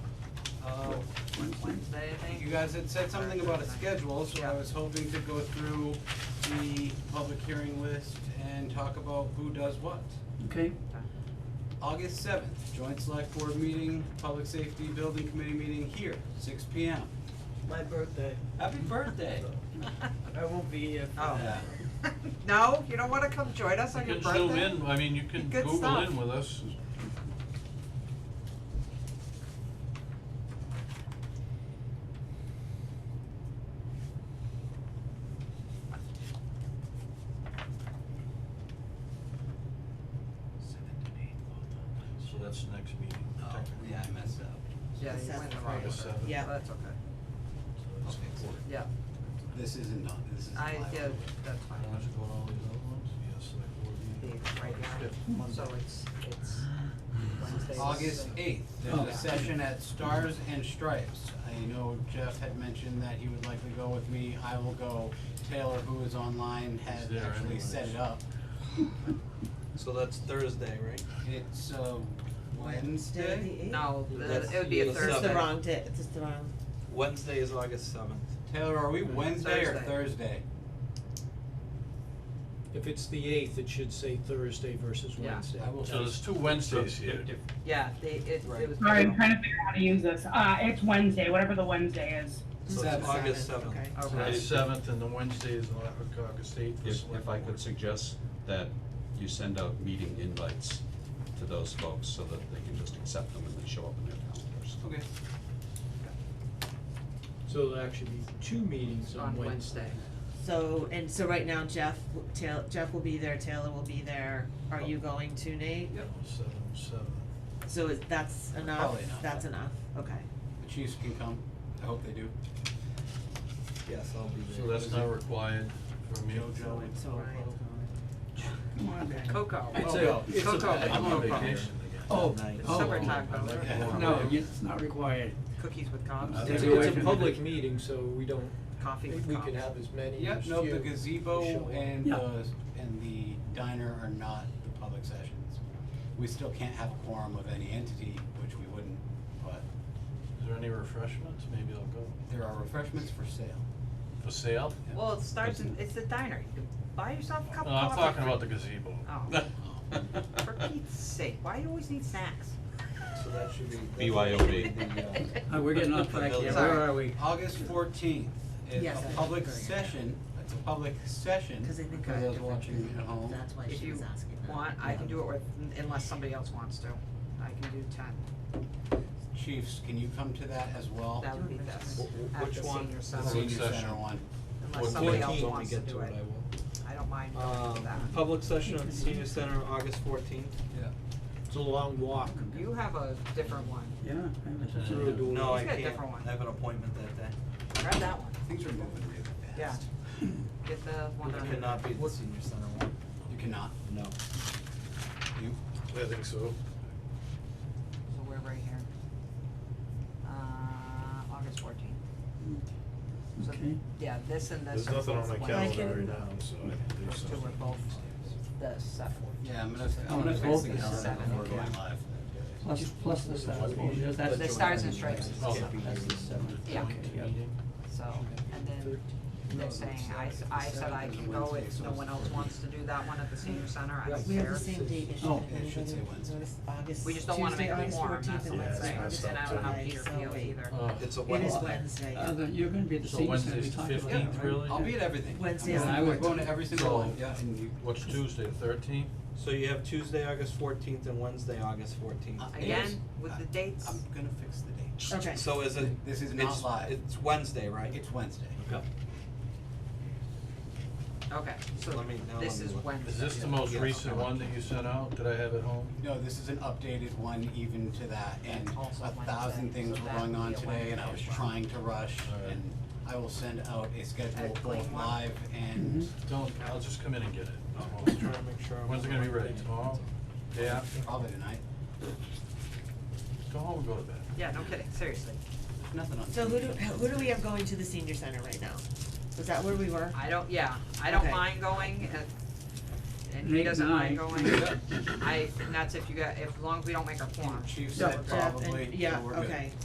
Wednesday, I think. Oh, You guys had said something about a schedule, so I Yeah. was hoping to go through the public hearing list and talk about who does what. Okay, August seventh, joint select board meeting, public safety building committee meeting here, six P M. My birthday. Happy birthday. I won't be here for Oh. that. No, you don't wanna come join us on your You can birthday? zoom in, I mean, you can Good Google stuff. in with us. So that's the next meeting. Oh, technically. yeah, I messed up. Yeah, you went in the wrong August order. seventh. Yeah, that's okay. So that's Okay. important. Yeah, This isn't on, this is I, live. yeah, that's fine. Unless you go to all these other ones, yes, select board meeting. It's right now, so it's, it's Wednesday. August eighth, there's Oh. a session at Stars and Stripes. I know Jeff had mentioned that he would likely go with me, I will go. Taylor, who is online, He's has there actually set anyways. it up. So that's Thursday, right? It's, uh, Wednesday? No, the- That's- it would be a that's the Thursday. It's the Seven. wrong day, it's just the wrong, Wednesday is August seventh. Taylor, are we Wednesday or Thursday. Thursday? If it's the eighth, it should say Thursday versus Yeah. Wednesday. I will- So there's two Wednesdays here. Yeah, they, it, it Right. was. Sorry, I'm trying to figure out how to use this. Uh, it's Wednesday, whatever the Wednesday is. So Seven. it's August Seven, seventh. okay. So Okay. that's seventh and the Wednesday is the August eighth. If, if I could suggest that you send out meeting invites to those folks so that they can just accept them and they show up in their calendars. Okay. So there'll actually be two meetings on On Wednesday. Wednesday. so, and so right now Jeff, w- Taylor, Jeff will be there, Taylor will be there, are Oh. you going to Nate? Yep. Seven, seven. So is, that's enough, Probably enough. that's enough, okay. The Chiefs can come, I hope they do. Yes, I'll be So there. that's not required for me. Joe. So Ryan, Come on, man. Cocoa. It's a- Oh, Well, it's a- I'm on Cocoa. vacation again. oh, It's oh, summertime, I like though. that. no, it's not required. Cookies with cobs, Uh, It's Maybe a, I it's a can- public meeting, so we don't, coffee with we cobs. can have as many as Yep, few. no, the show gazebo up. and Yeah. the, and the diner are not the public sessions. We still can't have a quorum of any entity, which we wouldn't, but Is there any refreshments? Maybe I'll go. there are refreshments for sale. For sale? Well, it starts in, it's the diner, you can buy yourself a cup of No, coffee. I'm talking for- about the gazebo. For Pete's sake, why do you always need snacks? So that should be. that's BYOB. the, uh, Uh, we're getting off track here, where are we? August fourteenth is Yes, I a think public we're gonna- session, it's a public session, cause I think for I have those different watching people. at home. that's why If she you was asking that. want, I can do it with, unless somebody else wants to, I can do ten, Chiefs, can you come to that as well? that would be best, Wh- wh- at which the one? senior The The center, senior session. center one. unless somebody else 14th, wants to do it, I don't mind going to Um, that. public session at the senior center, August fourteenth. Yeah. It's a long walk. You have a different one, Yeah. I have a- Through a door. No, I He's got a can't. different one. I have an appointment that day. grab that one, Things are moving really yeah, fast. get the one I that. cannot be at the senior center one. You cannot, No. you, I think so. So we're right here. Uh, August fourteenth. So, Okay. yeah, this and this. There's are nothing both on my Wednesday. calendar right now, so I can do Those two something. are both the seventh. yeah, I'm gonna, I'm gonna fix Both the is calendar seven. before going live. Plus, plus the stars, because that's. The stars and stripes. Oh, That's the seven. Yeah. Okay, yeah. So, and then they're saying, I, s- I said I can go if no one else wants to do that one at the senior center, I don't We have care. the same date issue. Oh, it should say Wednesday. August, We just don't wanna make Tuesday, it August warm, that's 14th, all and Yeah, I'm Wednesday, saying, that's August and I don't have 29th, Peter so Peel wait. either. Uh, It's a It is Wednesday. Wednesday. Uh, the- you're gonna be at the So senior center, Wednesday's we the talked about, 15th, right? really? I'll be at everything. Wednesday I'm is going- the I'm going to every single So- one, yeah, and you, What's Tuesday, the thirteenth? So you have Tuesday, August fourteenth and Wednesday, August fourteenth. Uh, Again, with the dates, I'm gonna fix the date. Okay. So is it? This is not it's- live. It's Wednesday, right? It's Wednesday. Yep. okay, so Let me- now this let me is look. Wednesday. Is this the most Yeah. recent one that you sent out that I have at home? No, this is an updated one even to that, and Also a thousand Wednesday, things so were that going would on be a today, and I was Wednesday as well. trying to rush, Alright. and I will send out a schedule A clean both one. live and, Don't, I'll just come in and get it. Oh. I'm just trying to make sure. I'm When's it gonna be on ready? the- Tomorrow? Day after? probably tonight, Go home and go to bed. Yeah, no kidding, seriously, there's nothing on. So who do, Tuesday. who do we have going to the senior center right now? Was that where we were? I don't, yeah, I don't Okay. mind going, and, and he Nate doesn't and mind I. going, I, and that's if you got, if, as long as we don't make our form. Chief said Yeah. Jeff and- probably, so Yeah, we're good. okay.